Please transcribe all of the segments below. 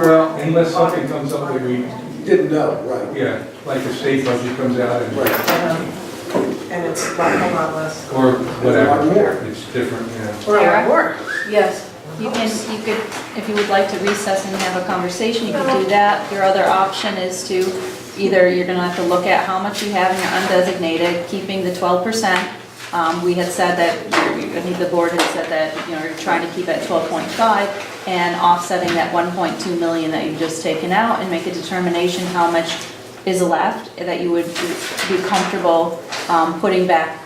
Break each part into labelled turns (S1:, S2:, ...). S1: Well, unless something comes up that we,
S2: Didn't know, right,
S1: yeah, like the state budget comes out and,
S2: right.
S3: And it's a lot, a lot less.
S1: or
S2: There's a lot more.
S1: whatever, it's different, yeah.
S3: Or a lot more.
S4: Yes, you can, you could, if you would like to recess and have a conversation, you could do that. Your other option is to, either you're gonna have to look at how much you have in your undesignated, keeping the twelve percent. Um, we had said that, I think the board had said that, you know, you're trying to keep at twelve point five and offsetting that one point two million that you've just taken out and make a determination how much is left that you would be comfortable, um, putting back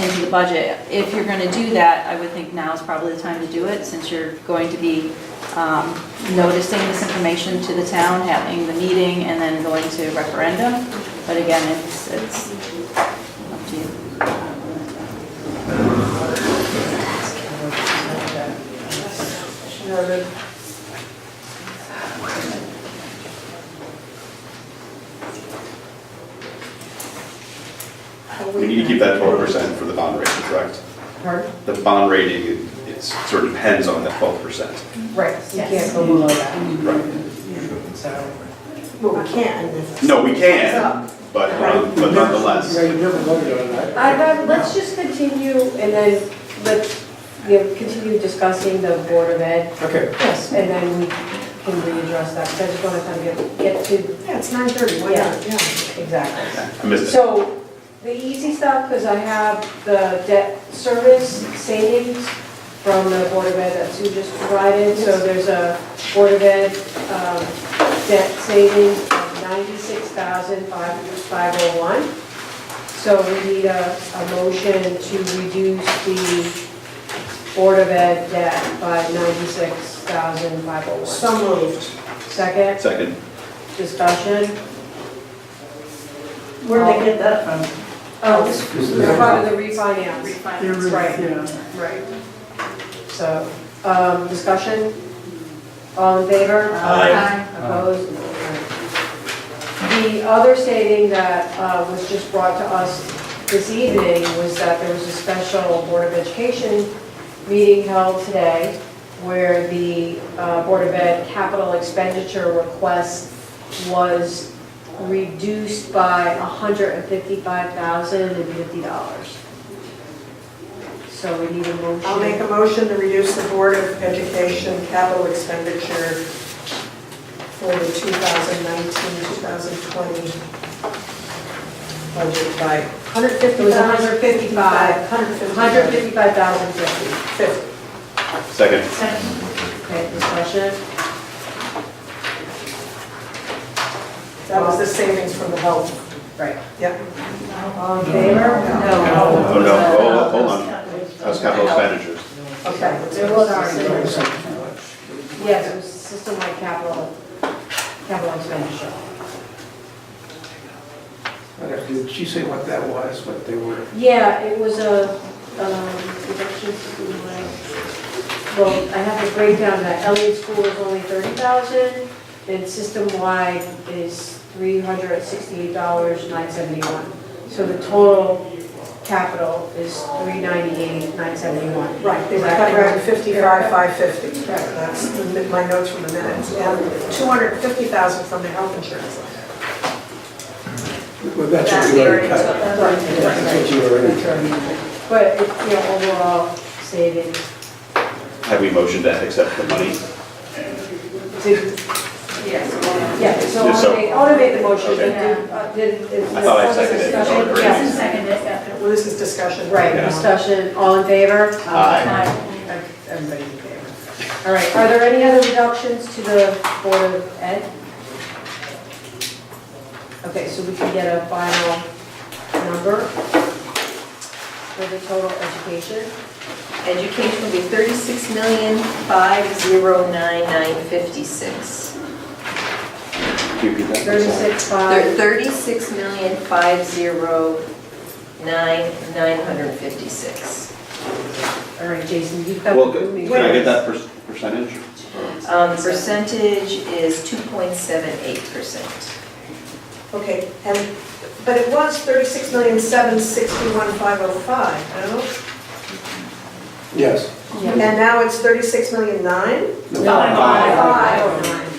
S4: into the budget. If you're gonna do that, I would think now is probably the time to do it, since you're going to be um, noticing this information to the town, having the meeting, and then going to referendum. But again, it's, it's up to you.
S3: Noted.
S5: We need to keep that twelve percent for the bond rating, correct?
S3: Pardon?
S5: The bond rating, it sort of depends on that twelve percent.
S3: Right, you can't go below that,
S5: Right.
S3: so. Well, we can't.
S5: No, we can, but, um, but
S2: Yeah,
S5: nonetheless,
S2: you never voted on that.
S6: I'd rather, let's just continue and then let's, you know, continue discussing the Board of Ed
S2: Okay,
S3: Yes.
S6: and then we can readdress that, 'cause I just want to kind of get, get to,
S3: Yeah, it's nine thirty, why not? Yeah.
S6: exactly.
S5: I missed it.
S6: So the easy stuff, because I have the debt service savings from the Board of Ed that Sue just provided. So there's a Board of Ed um, debt savings of ninety-six thousand five oh one. So we need a, a motion to reduce the Board of Ed debt by ninety-six thousand five oh one.
S3: So moved.
S6: Second,
S5: Second,
S6: discussion?
S7: Where'd they get that from?
S6: Oh, this is part of the refinance.
S7: That's
S6: right.
S7: Yeah.
S6: Right. So, um, discussion? All in favor?
S5: Aye.
S6: Opposed? The other saving that uh, was just brought to us this evening was that there was a special Board of Education meeting held today where the uh, Board of Ed capital expenditure request was reduced by $155,050. So we need a motion.
S3: I'll make a motion to reduce the Board of Education capital expenditure for the 2019-2020 budget by 150.
S6: It was 155.
S3: 150.
S6: 155,050.
S5: second,
S7: Second.
S6: Okay, discussion?
S3: That was the savings from the health.
S6: Right.
S3: Yep.
S6: All in favor?
S5: oh
S6: No.
S5: no, oh, hold on, that was capital expenditures.
S3: Okay.
S6: There was already, yes, it was system-wide capital, capital expenditure.
S2: Okay, did she say what that was, what they were?
S6: Yeah, it was a, um, reduction system-wide. Well, I have to break down that Elliott School is only 30,000 and system-wide is $368,971. So the total capital is 398,971.
S3: Right, they were cut around 55, 550. That's the mi- my notes from the minutes. And 250,000 from the health insurance.
S2: Well, that's what you already cut.
S6: That's what it is.
S2: That's what you already cut.
S6: But, it- you know, overall savings,
S5: Have we motioned to accept the money?
S6: did, yeah, so I
S5: Yeah, so-
S6: want to make, I want to make the motion,
S5: Okay.
S6: but did, uh, did, is.
S5: I thought I
S6: was there
S5: seconded it.
S6: discussion?
S5: Sorry.
S6: Yes.
S7: Second is after.
S3: Well, this is discussion.
S6: Right,
S5: Yeah. Uh.
S6: discussion, all in favor? Uh,
S5: Aye.
S6: Everybody's in favor. All right, are there any other reductions to the Board of Ed? Okay, so we can get a final number for the total education.
S8: Education will be thirty-six million, five zero nine nine fifty-six.
S5: Can you repeat that?
S6: Thirty-six, five,
S8: Thirty-six million, five zero nine nine hundred fifty-six.
S6: all right, Jason, you've got.
S5: Well,
S6: the
S5: can
S6: movie.
S5: I get that per- percentage?
S8: Um, percentage is two point seven eight percent.
S3: Okay, and, but it was 36,761,505, no?
S2: Yes.
S6: Yeah.
S3: And now it's 36,9?
S2: No.
S3: Five.